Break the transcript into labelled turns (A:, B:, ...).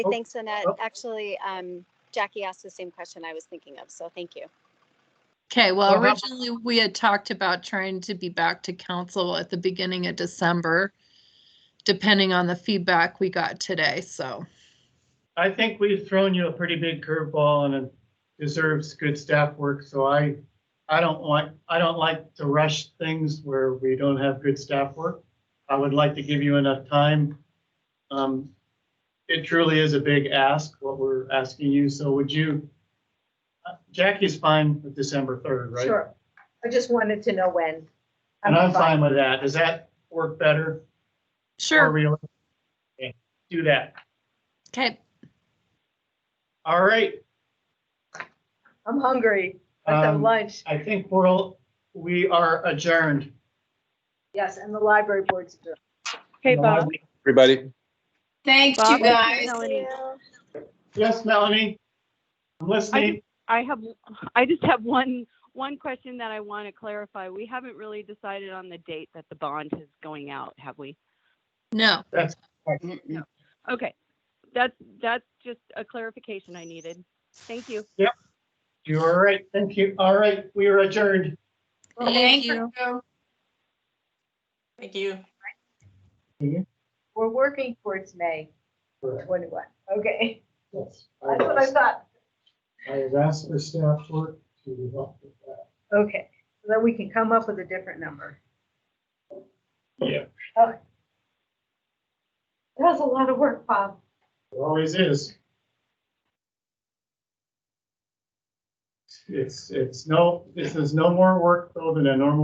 A: Hey, Thanks, Annette.
B: Oh.
A: Actually, um, Jackie asked the same question I was thinking of, so thank you.
C: Okay, well,
B: Or how-
C: originally we had talked about trying to be back to council at the beginning of December, depending on the feedback we got today, so.
B: I think we've thrown you a pretty big curveball and it deserves good staff work, so I, I don't want, I don't like to rush things where we don't have good staff work. I would like to give you enough time. Um, It truly is a big ask, what we're asking you, so would you? uh, Jackie's fine with December third, right?
D: Sure. I just wanted to know when.
B: And I'm fine with that. Does that work better? More
C: Sure,
B: real- Okay, Do that.
C: okay,
B: All right.
D: I'm hungry. I have
B: um,
D: lunch.
B: I think we're, all- we are adjourned.
D: Yes, and the library board's. adjourned.
E: Hey, Bob.
F: Everybody.
G: Thanks, you
E: Bob,
G: guys.
A: Melanie.
B: Yes, Melanie? I'm listening.
E: I have, I just have one, one question that I want to clarify. We haven't really decided on the date that the bond is going out, have we?
C: no,
E: Okay, that's, that's just a clarification I needed. Thank you.
B: You're all right. Thank you. All right, we are adjourned.
C: thank you.
G: Thank you.
D: We're working towards May
B: Correct.
D: 21. Okay.
B: Oh, Yes. I
D: That's what I
B: have
D: thought.
B: I have asked the staff work to help with that.
D: Okay, so then we can come up with a different number.
B: Yeah,
D: That was a lot of work, Bob.
B: it always is. It's, it's no, this is no more work though than a normal